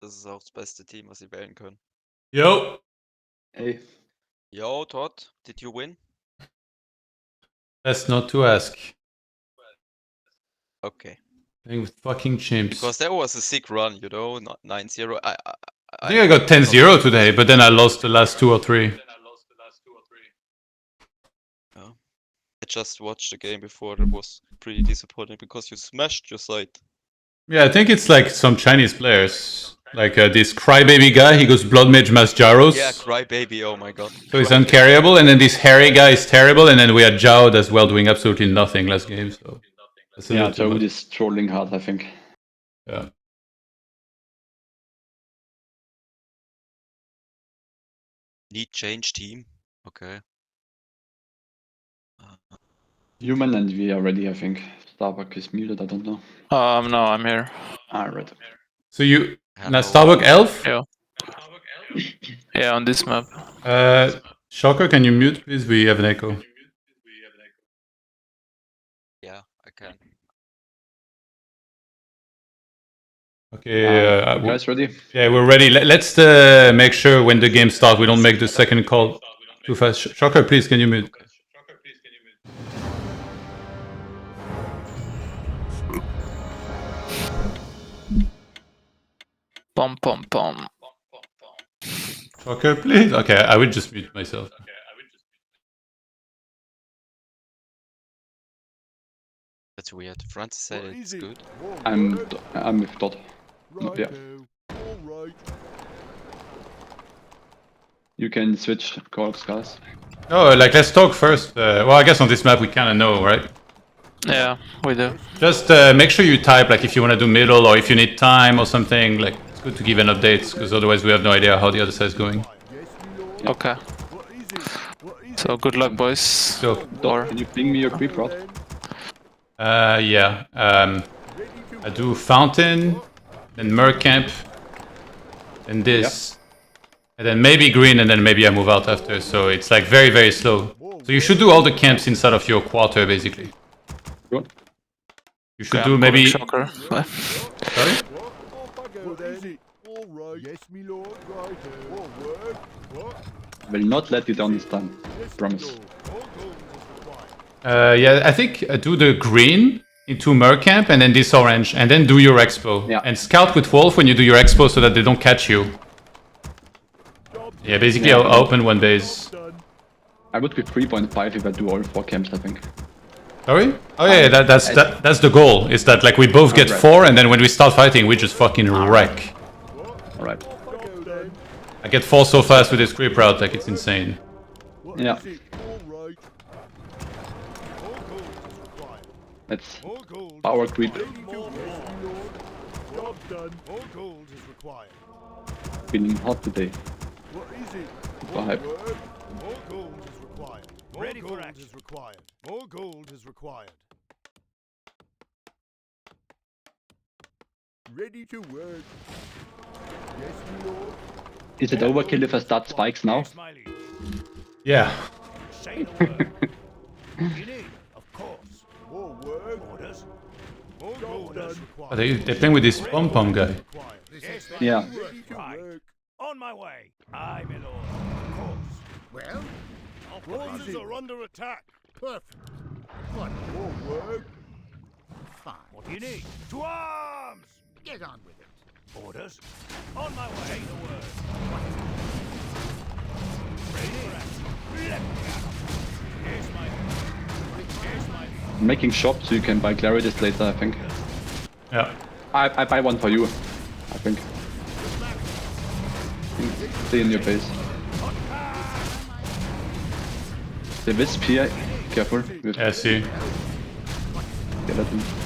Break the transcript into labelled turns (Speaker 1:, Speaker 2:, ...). Speaker 1: Das ist auch das beste Team, was sie wählen können.
Speaker 2: Yo,
Speaker 3: Ey,
Speaker 1: Yo, Todd, did you win?
Speaker 2: that's not to ask.
Speaker 1: Okay.
Speaker 2: Playing with fucking chimps.
Speaker 1: Because there was a sick run, you know, not 9-0. I, I,
Speaker 2: I think I got 10 0 today, but then I lost the last two or three.
Speaker 1: I just watched the game before. It was pretty disappointing because you smashed your side.
Speaker 2: Yeah, I think it's like some Chinese players. Like uh, this crybaby guy, he goes Blood Mage Mass Jaros.
Speaker 1: Yeah, cry baby. Oh my god.
Speaker 2: so he's uncarryable, and then this hairy guy is terrible, and then we had Jowd as well doing absolutely nothing last game. So that's a
Speaker 3: yeah,
Speaker 2: little
Speaker 3: Joe
Speaker 2: much.
Speaker 3: is trolling hard, I think.
Speaker 2: Yeah.
Speaker 1: Need change team. Okay. Uh,
Speaker 3: Human and we are ready, I think. Starbuck is muted, I don't know.
Speaker 4: Um, no, I'm here.
Speaker 3: Ah, right.
Speaker 2: So you now
Speaker 1: hello.
Speaker 2: Starbuck Elf.
Speaker 4: Yeah. Yeah, on this map.
Speaker 2: Uh, Shocker, can you mute please? We have an echo.
Speaker 1: Yeah, I can.
Speaker 2: Okay.
Speaker 3: Um,
Speaker 2: uh,
Speaker 3: You guys ready?
Speaker 2: Yeah, we're ready. Let, let's uh, make sure when the game starts, we don't make the second call too fast. Sh- Shocker, please, can you mute?
Speaker 4: Pom pom pom.
Speaker 2: Shocker, please. Okay, I would just mute myself.
Speaker 1: That's weird. Francis said it's good.
Speaker 3: I'm I'm with Todd. yeah. You can switch calls, guys.
Speaker 2: No, like let's talk first. Uh, well, I guess on this map we kind of know, right?
Speaker 4: Yeah, we do.
Speaker 2: Just uh, make sure you type like if you want to do middle or if you need time or something. Like it's good to give an update because otherwise we have no idea how the other side is going.
Speaker 4: Okay. So good luck, boys.
Speaker 2: So,
Speaker 3: Todd,
Speaker 4: Or
Speaker 3: can you ping me your creep rod?
Speaker 2: uh, yeah, um, I do fountain, then Merkamp, then this, and then maybe green, and then maybe I move out after. So it's like very very slow. So you should do all the camps inside of your quarter basically.
Speaker 3: Good.
Speaker 2: You should
Speaker 4: Yeah,
Speaker 2: do
Speaker 4: I'm
Speaker 2: maybe.
Speaker 4: calling shocker.
Speaker 2: Sorry?
Speaker 3: Will not let you down this time. Promise.
Speaker 2: Uh, yeah, I think uh, do the green into Merkamp and then this orange, and then do your expo.
Speaker 3: Yeah.
Speaker 2: And scout with Wolf when you do your expo so that they don't catch you. Yeah, basically
Speaker 3: Yeah.
Speaker 2: I'll I'll open one base.
Speaker 3: I would be 3.5 if I do all four camps, I think.
Speaker 2: Sorry? Oh yeah, yeah, that, that's that, that's the goal. Is that like we both get
Speaker 3: Alright.
Speaker 2: four, and then when we start fighting, we just fucking wreck.
Speaker 3: Alright.
Speaker 2: I get four so fast with this creep route, like it's insane.
Speaker 3: Yeah.
Speaker 5: Alright. All gold is required.
Speaker 3: Let's
Speaker 5: All gold.
Speaker 3: power creep.
Speaker 5: More, more. Job done. All gold is required.
Speaker 3: Feeling hot today.
Speaker 5: What is it?
Speaker 3: War hype.
Speaker 5: work. More gold is required. More gold is required. More gold is required. Ready to work. Yes, my lord.
Speaker 3: Is it overkill if I start spikes now?
Speaker 5: Smiley.
Speaker 2: Yeah.
Speaker 5: Say no word. you need, of course. More work. Orders. More gold is
Speaker 2: Oh,
Speaker 5: required.
Speaker 2: they, they're playing with this pom pom guy.
Speaker 5: required. Yes, my
Speaker 3: Yeah.
Speaker 5: lord. Ready to work. On my way. Aye, my lord. Of course. Well? Our forces are under attack. Perfect. What? More work? Fine. What do you need? To arms! Get on with it. Orders? On my way. Say the word. Ready for action. Left attack. Yes, my lord. Yes, my lord.
Speaker 3: I'm making shop so you can buy clarities later, I think.
Speaker 2: Yeah.
Speaker 3: I, I buy one for you, I think. Stay in your base. The wisp here, careful. With
Speaker 2: Yeah, I see.
Speaker 3: skeleton.